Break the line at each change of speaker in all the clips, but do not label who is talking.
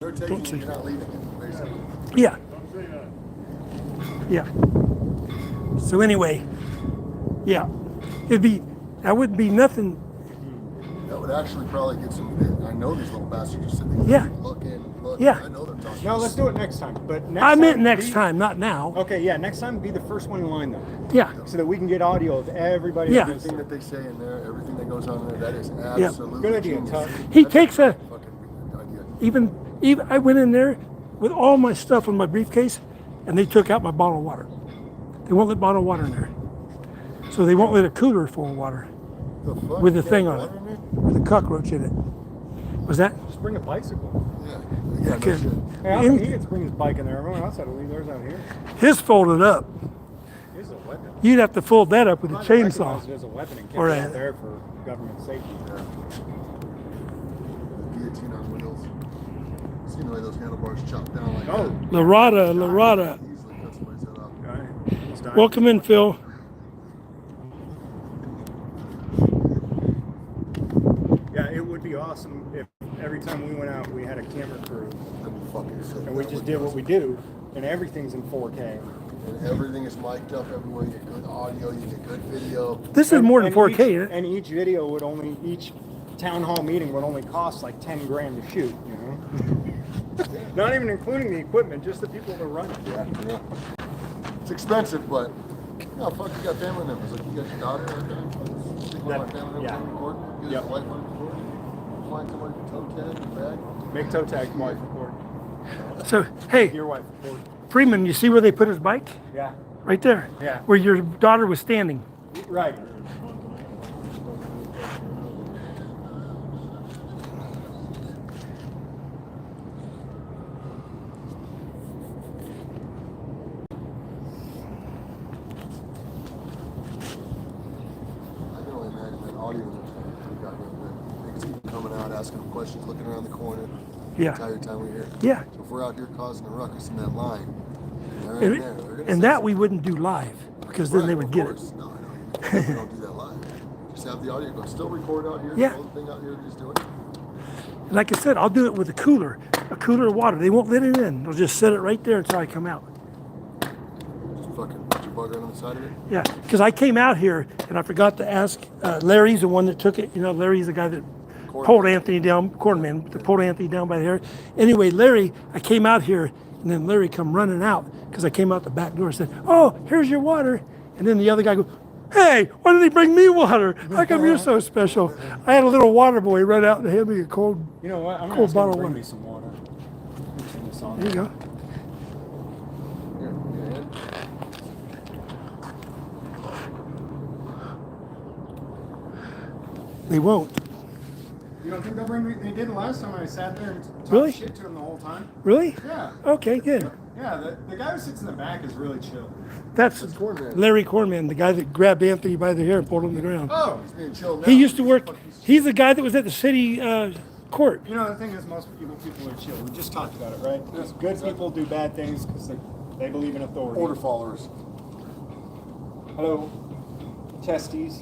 we're taking
Don't
it,
see.
you're not leaving it, basically.
Yeah. Yeah. So anyway, yeah, it'd be that would be nothing.
That would actually probably get some, I know these little bastards are sitting
Yeah.
there looking, looking,
Yeah.
I know they're talking.
No, let's do it next time. But next
I meant
time,
next
be-
time, not now.
Okay, yeah, next time be the first one in line though,
Yeah,
so that we can get audio of everybody.
Yeah.
that's
Everything
in
that they say in there, everything that goes on in there, that is absolutely
Good idea,
genius.
Todd.
He
That's a
takes a-
fucking idea.
even even I went in there with all my stuff in my briefcase, and they took out my bottle of water. They won't let bottle of water in there, so they won't let a cooler full of water
The fuck?
With the
You got
thing on
water
it.
in there?
with a cockroach in it. Was that?
Just bring a bicycle.
Yeah, yeah,
Okay.
no shit.
Hey, I think
In-
he gets to bring his bike in there. Everyone else had to leave theirs out here.
His folded up.
Here's a weapon.
You'd have to fold that up with a
Might recognize
chainsaw.
it as a weapon and kept
Or
it
a-
out there for government safety.
The guillotine on wheels. Seen the way those handlebars chopped down like
Oh.
that.
Larada, Larada.
Easily cuts somebody's head off.
Welcome in, Phil.
Yeah, it would be awesome if every time we went out, we had a camera crew
That'd be fucking sick.
and we
That
just
would
did
be
what we do, and everything's in 4K.
awesome. And everything is mic'd up everywhere. You get good audio, you get good video.
This is
And-
more than
and
4K.
each-
isn't it?
and each video would only each town hall meeting would only cost like ten grand to shoot. You know, not even including the equipment, just the people that run it.
Yeah, yeah. It's expensive, but no, fuck, you got family members. Like, you got your daughter. Okay. Take one of my
That-
family members
yeah.
on the court. Get
Yep.
his wife on the court. Flying somebody to toe tag, your bag.
Make toe tag wife report.
So, hey,
Your wife report.
Freeman, you see where they put his bike?
Yeah.
Right there.
Yeah.
Where your daughter was standing.
Right.
I can only imagine that audio is we got with Niggas keep coming out, asking them questions, looking around the corner. The
Yeah.
entire time we're here.
Yeah.
So if we're out here causing a ruckus in that line, they're in
And,
there. They're gonna
and
say
that we wouldn't do live because then they
Right,
would
of
get it.
course. No, no, you don't do that live. Just have the audio go. Still record out here.
Yeah.
The whole thing out here. Just do it.
And like I said, I'll do it with a cooler, a cooler of water. They won't let it in. They'll just set it right there until I come out.
Just fucking put your bug right on the side of it.
Yeah, because I came out here and I forgot to ask. Uh, Larry's the one that took it. You know, Larry's the guy that
Corn
pulled
man.
Anthony down, cornman, that pulled Anthony down by the hair. Anyway, Larry, I came out here and then Larry come running out because I came out the back door and said, "Oh, here's your water." And then the other guy goes, "Hey, why did he bring me water? How come you're so special?" I had a little water boy run out and hand me a cold.
You know what?
Cool
I'm gonna ask him
bottle
to bring
one.
me some water. Turn this on.
There you go.
Here, yeah, and-
They won't.
You don't think they'll bring me? They didn't last time. I sat there and talked
Really?
shit to him the whole time.
Really?
Yeah.
Okay, good.
Yeah. The, the guy who sits in the back is really chill.
That's
That's Cornman.
Larry Cornman, the guy that grabbed Anthony by the hair and pulled him to the ground.
Oh.
He's being chilled
He
now.
used to work.
Fuck, he's-
He's the guy that was at the city uh, court.
You know, the thing is, most people, people are chill. We just talked about it, right? Because good
exactly.
people do bad things because they, they believe in authority.
Order followers.
Hello, testes,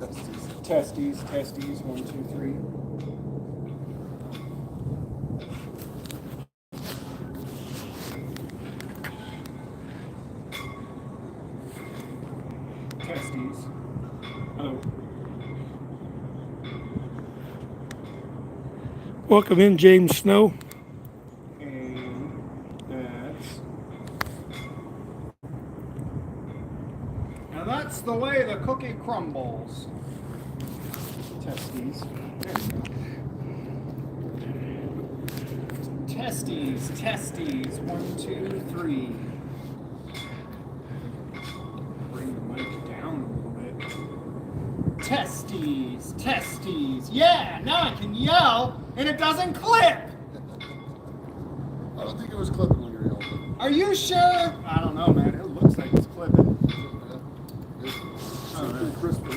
That's just-
testes, testes. One, two, three. Testes. Hello.
Welcome in, James Snow.
And that's. Now that's the way the cookie crumbles. Testes. There we go. Testes, testes. One, two, three. Bring the mic down a little bit. Testes, testes. Yeah, now I can yell and it doesn't clip.
I don't think it was clipping when you were young.
Are you sure? I don't know, man.